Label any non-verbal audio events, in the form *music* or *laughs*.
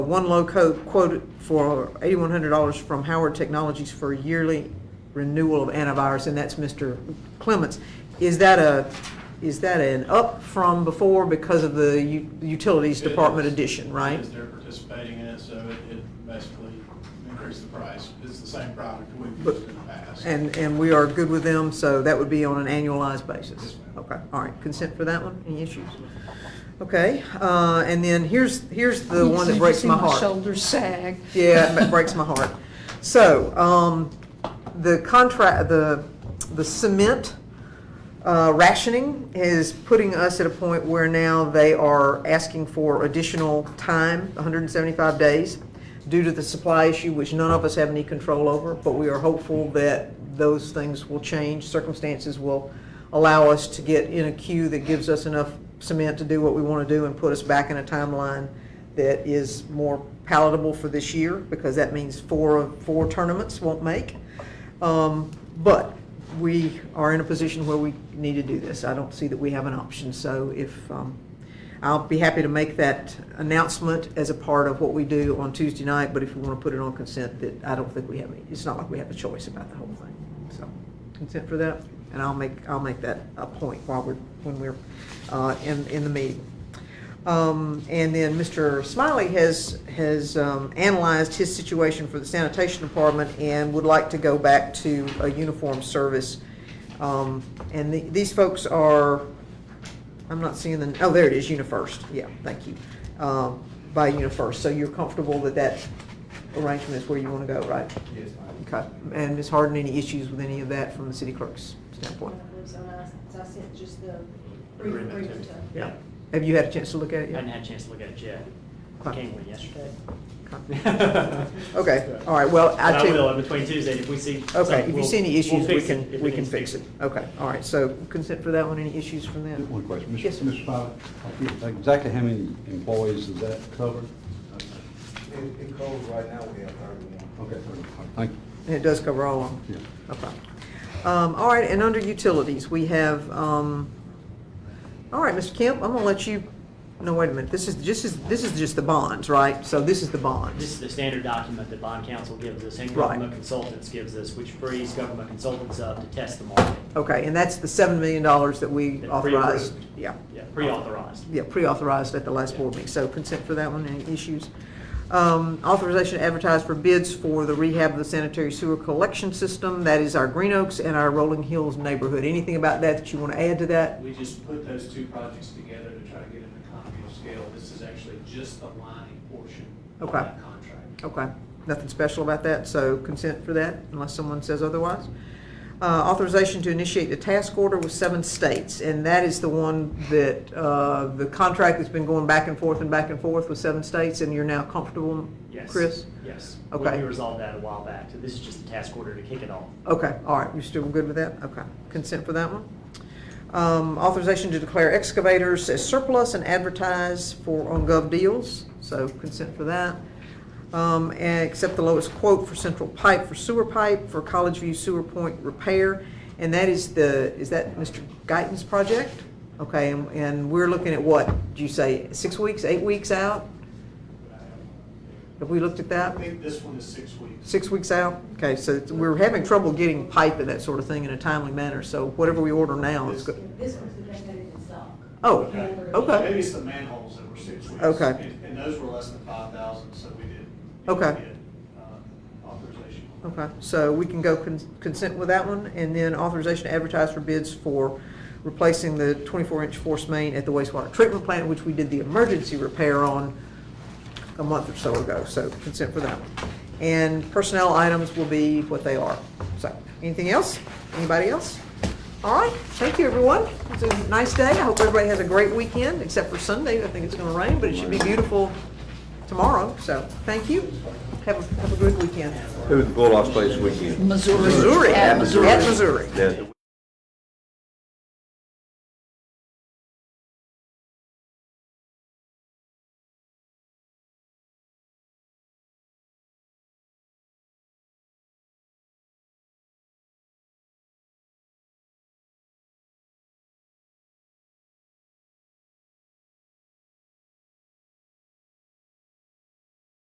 One low code quoted for $8,100 from Howard Technologies for yearly renewal of antivirus, and that's Mr. Clements. Is that a, is that an up from before because of the u- utilities It department is. addition, It right? is. They're participating in it, so it- it basically increased the price. It's the same product we've But- used in the past. And, and we are good with them, so that would be on an annualized basis? Yes, ma'am. Okay, all right, consent for that one, any issues? Okay, uh, and then here's, here's the one that breaks my heart. You see shoulders sag. Yeah, it breaks my heart. So, um, the contract, the, the cement, uh, rationing is putting us at a point where now they are asking for additional time, hundred and seventy-five days, due to the supply issue, which none of us have any control over, but we are hopeful that those things will change, circumstances will allow us to get in a queue that gives us enough cement to do what we want to do and put us back in a timeline that is more palatable for this year, because that means four of, four tournaments won't make. Um, But we are in a position where we need to do this. I don't see that we have an option, so if, um, I'll be happy to make that announcement as a part of what we do on Tuesday night, but if you want to put it on consent, that I don't think we have any, it's not like we have a choice about the whole thing, so consent for that, and I'll make, I'll make that a point while we're, when we're uh, in, in the meeting. Um, And then Mr. Smiley has, has um, analyzed his situation for the sanitation department and would like to go back to a uniform service. Um, And the- these folks are, I'm not seeing the, oh, there it is, UniFirst, yeah, thank you, Um, by UniFirst. So you're comfortable that that arrangement is where you want to go, right? Yes, Okay, and Ms. Harden, any issues with any of that from the city clerk's standpoint? So I, so I sent just the brief, Agreement brief to- to. Yeah. Have you had a chance to look at it I yet? hadn't had a chance to look at it yet. Huh. Came in yesterday. Okay. *laughs* Okay, all right, well, But I I take. will, and between Tuesday, if we see. Okay, something, if you we'll- see any we'll issues, we fix it can, if we it can needs to be fix it. Okay, all right, so consent for that one, any issues from that? One question, Yes, sir. Mr. Mr. Pilot, I forget exactly how many employees is that covered? In, in code right now, we have thirty-one. Okay, thank you. And it does cover all of them? Yeah. Okay. Um, all right, and under utilities, we have, um, all right, Mr. Kemp, I'm gonna let you, no, wait a minute, this is, this is, this is just the bonds, right? So this is the This bonds. is the standard document that bond counsel gives us and Right. government consultants gives us, which frees government consultants up to test the market. Okay, and that's the seven million dollars that we That authorized? pre-approved. Yeah. Yeah, pre-authorized. yeah, pre-authorized at the last board meeting, so consent for that one, any issues? Um, Authorization to advertise for bids for the rehab of the sanitary sewer collection system, that is our Green Oaks and our Rolling Hills neighborhood. Anything about that that you want to add to that? We just put those two projects together to try to get an economy of scale. This is actually just the lining portion of Okay. that contract. Okay, nothing special about that, so consent for that, unless someone says otherwise. Uh, Authorization to initiate the task order with seven states, and that is the one that, uh, the contract that's been going back and forth and back and forth with seven states, and you're now comfortable, Yes. Chris? Yes. Okay. We resolved that a while back, so this is just a task order to kick it off. Okay, all right, you're still good with that? Okay, consent for that one. Um, Authorization to declare excavators as surplus and advertise for on gov deals, so consent for that. Um, And accept the lowest quote for central pipe for sewer pipe for College View Sewer Point repair, and that is the, is that Mr. Guyton's project? Okay, and- and we're looking at what, do you say, six weeks, eight weeks out? Have we looked at I that? think this one is six weeks. Six weeks out? Okay, so it's- we're having trouble getting pipe and that sort of thing in a timely manner, so whatever we order now is good. This was the thing that it was stock. Oh, okay. Maybe it's the manholes that were six weeks. Okay. And- And those were less than five thousand, so we did. Okay. get, uh, Authorization. Okay, so we can go con- consent with that one, and then authorization to advertise for bids for replacing the 24-inch force main at the wastewater treatment plant, which we did the emergency repair on a month or so ago, so consent for that one. And personnel items will be what they are. So, anything else? Anybody else? All right, thank you, everyone. It's a nice day. I hope everybody has a great weekend, except for Sunday. I think it's gonna rain, but it should be beautiful tomorrow, so thank you. Have, a have a good weekend. Who was the Bulldogs play this weekend? Missouri. Missouri. At Missouri. At Missouri. The